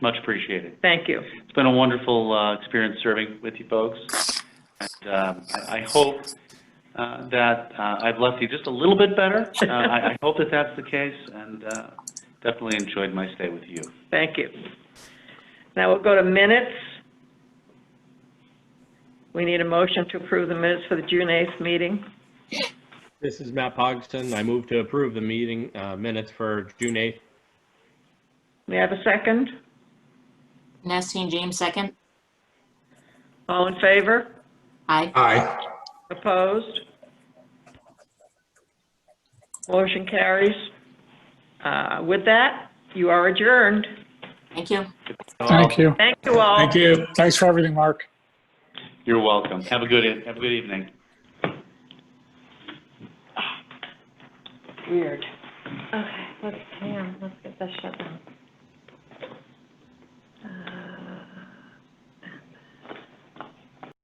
Much appreciated. Thank you. It's been a wonderful uh, experience serving with you folks. And um, I I hope uh, that uh, I've left you just a little bit better. Uh, I I hope that that's the case, and uh, definitely enjoyed my stay with you. Thank you. Now we'll go to minutes. We need a motion to approve the minutes for the June 8th meeting. This is Matt Pogston. I move to approve the meeting uh, minutes for June 8th. May I have a second? Nestine James, second. All in favor? Aye. Aye. Opposed? Motion carries. Uh, With that, you are adjourned. Thank you. Thank you. Thank you all. Thank you. Thanks for everything, Mark. You're welcome. Have a good, e- have a good evening. Weird. Okay, let's, hang on, let's get this shut down.